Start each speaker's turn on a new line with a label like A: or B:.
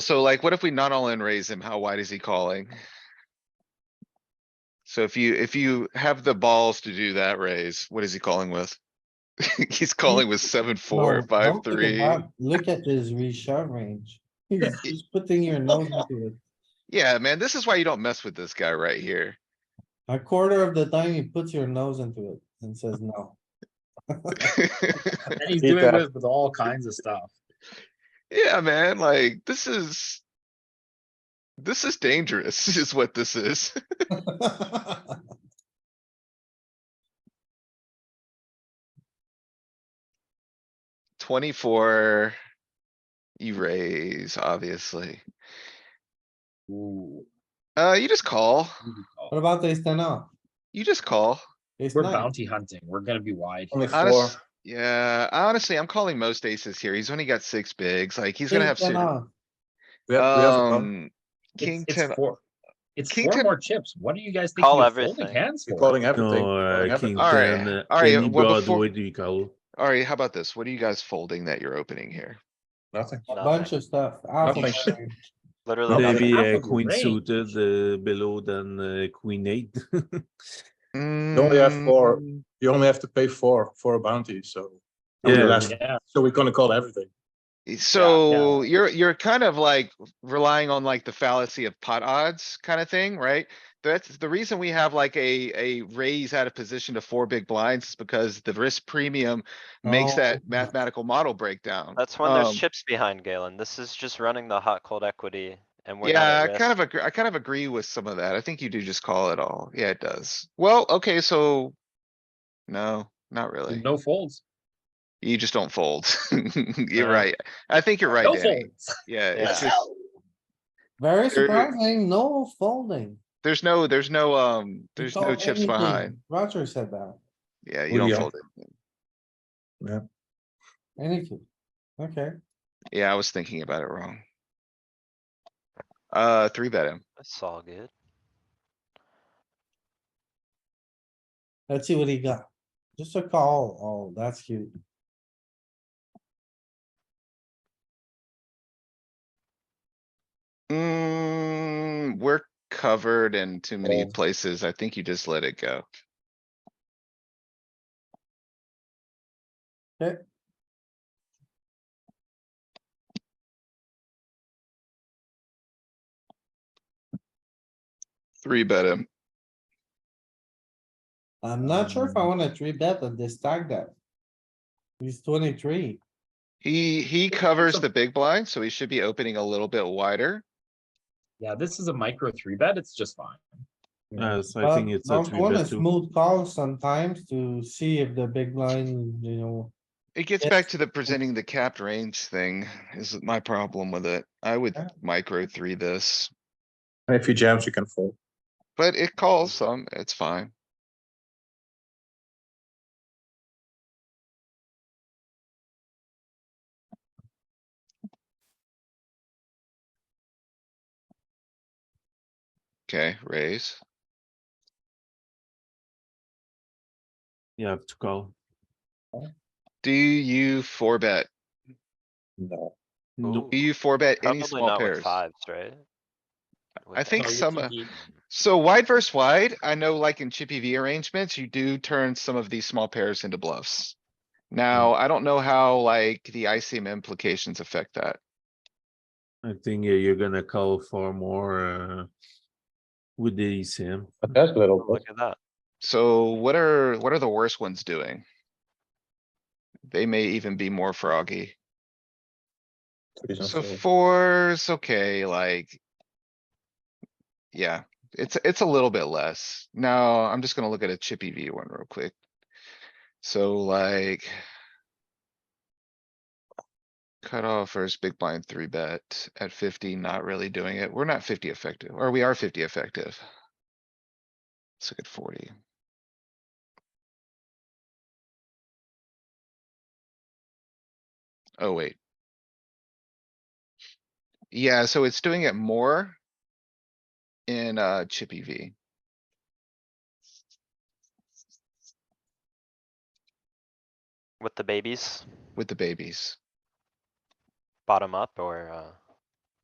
A: So like, what if we not all in raise him? How wide is he calling? So if you, if you have the balls to do that raise, what is he calling with? He's calling with seven, four,
B: No,
A: five,
B: don't look at
A: three.
B: that. Look at his reshove range. He's he's putting your nose into it.
A: Yeah, man, this is why you don't mess with this guy right here.
B: A quarter of the time he puts your nose into it and says no.
C: And he's
D: He
C: doing
D: does.
C: this with all kinds of stuff.
A: Yeah, man, like, this is. This is dangerous, is what this is. Twenty-four. You raise, obviously.
C: Ooh.
A: Uh, you just call.
B: What about ace ten off?
A: You just call.
B: Ace
C: We're
B: nine.
C: bounty hunting. We're gonna be wide.
D: On the floor,
A: Honest, yeah, honestly, I'm calling most aces here. He's only got six bigs, like he's gonna have
B: Ace ten
A: to.
B: off.
D: we have, we have a bump.
A: Um,
C: It's-
A: king
C: it's
A: ten,
C: four- It's
A: King
C: four
A: ten-
C: more chips. What do you guys think?
E: Call
C: we're
E: everything.
C: folding Hands
D: We're
C: for.
D: calling everything.
F: No,
D: calling
F: uh,
D: everything.
A: All right,
F: King ten,
A: all right, well,
F: any board,
A: before-
F: what do you call?
A: alright, how about this? What are you guys folding that you're opening here?
D: Nothing.
B: A bunch of stuff. Half of
D: Nothing.
B: it.
E: Literally. nothing.
F: Maybe
C: half
F: uh,
C: of the
F: queen
C: range.
F: suited uh, below than uh, queen eight.
D: only have four.
A: Mm,
D: You only have to pay four for a bounty, so.
F: Yeah.
D: Yeah, last-
C: Yeah,
D: so we're gonna call everything.
A: So you're, you're kind of like relying on like the fallacy of pot odds kind of thing, right? That's the reason we have like a, a raise out of position to four big blinds is because the risk premium makes
B: Oh.
A: that mathematical model breakdown.
E: That's when there's
A: Um,
E: chips behind Galen. This is just running the hot cold equity and we're not
A: Yeah,
E: at
A: I kind
E: risk.
A: of agree, I kind of agree with some of that. I think you do just call it all. Yeah, it does. Well, okay, so. No, not really.
C: no folds.
A: You just don't fold. You're
E: Uh,
A: right. I think you're right,
C: No
A: Danny.
C: folds.
A: Yeah,
E: Yeah.
A: it's just,
B: Very
A: There-
B: surprising, no folding.
A: there's no, there's no, um,
B: He
A: there's no
B: called
A: chips
B: everything.
A: behind.
B: Roger said that.
A: Yeah,
D: Oh,
A: you don't
D: yeah.
A: fold it.
B: Anything. Okay,
A: Yeah, I was thinking about it wrong. Uh, three bet him.
E: It's all good.
B: let's see what he got. Just a call. Oh, that's cute.
A: Mm, we're covered in too many
C: Fold.
A: places. I think you just let it go.
B: Eh.
A: Three bet him.
B: I'm not sure
F: Um,
B: if I wanna three bet on this stack that. He's twenty-three.
A: He, he covers
C: a-
A: the big blind, so he should be opening a little bit wider.
C: Yeah, this is a micro three bet. It's just fine.
F: Uh, so
B: Well,
F: I think it's a
B: don't
F: three
B: want a
F: bet two.
B: Um, Smooth call sometimes to see if the big line, you know,
A: It gets
B: Yes.
A: back to the presenting the capped range thing is my problem with it. I would
B: Yeah.
A: micro three this,
D: And if he jams, you can fold.
A: but it calls some, it's fine. Okay, raise.
F: You have to call.
A: Do you four bet?
D: No.
E: Ooh,
A: Do you four bet any
E: Probably
A: small
E: not with
A: pairs?
E: fives, right? With
A: I think
C: So
E: eights.
C: you're
A: some, uh,
C: thinking-
A: So wide versus wide, I know like in chippy V arrangements, you do turn some of these small pairs into bluffs.
E: Hmm.
A: Now, I don't know how like the ICM implications affect that.
F: I think uh, you're gonna call for more uh, with the E ECM.
D: But that's
E: Oh,
D: little.
E: Look at that.
A: So what are, what are the worst ones doing? They may even be more froggy. So fours, okay, like. Yeah, it's, it's a little bit less. Now, I'm just gonna look at a chippy V one real quick. So like. Cut off versus big blind three bet at fifty, not really doing it. We're not fifty effective, or we are fifty effective. Let's look at forty. Oh, wait. Yeah, so it's doing it more. In uh Chippy V.
E: With the babies,
A: with the babies.
E: bottom up or, uh,